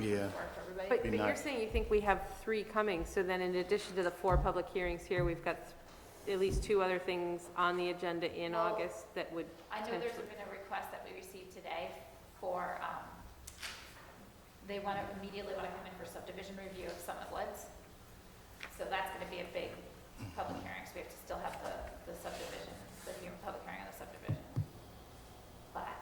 Yeah. work for everybody. But, Be but you're nice. saying you think we have three coming, so then in addition to the four public hearings here, we've got at least two other things on the agenda in Well, August that would I know there's potentially. been a request that we received today for, um, they want to immediately want to come in for subdivision review of Summit Woods. So that's going to be a big public hearing, so we have to still have the, the subdivision, the hearing, public hearing on the subdivision. But,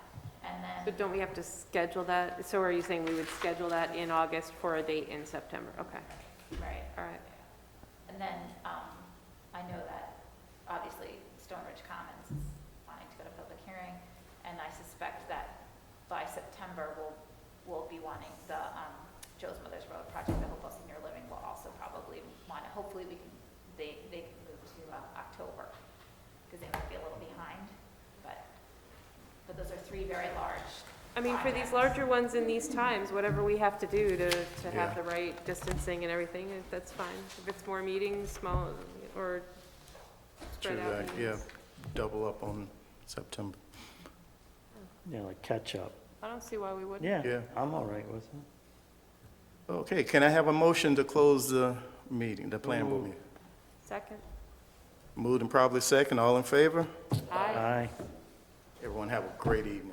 and So then, don't we have to schedule that? So are you saying we would schedule that in August for a date in September? Okay, right, all right. and then, um, I know that obviously Stone Ridge Commons is wanting to go to public hearing, and I suspect that by September, we'll, we'll be wanting the, um, Joe's Mother's Road project, the Hopewell Senior Living will also probably want, hopefully we can, they, they can move to, uh, October, because they might be a little behind, but, but those are three very large. I mean, for these projects. larger ones in these times, whatever we have to do to, to Yeah. have the right distancing and everything, if that's fine. If it's more meetings, small, or True spread out. that, yeah, meetings. double up on September, you know, like catch up. I don't see why we wouldn't. Yeah, Yeah. I'm all right with it. Okay, can I have a motion to close the meeting, the planning board meeting? Second? Moved and probably second, all in favor? Aye. Aye. Everyone have a great evening.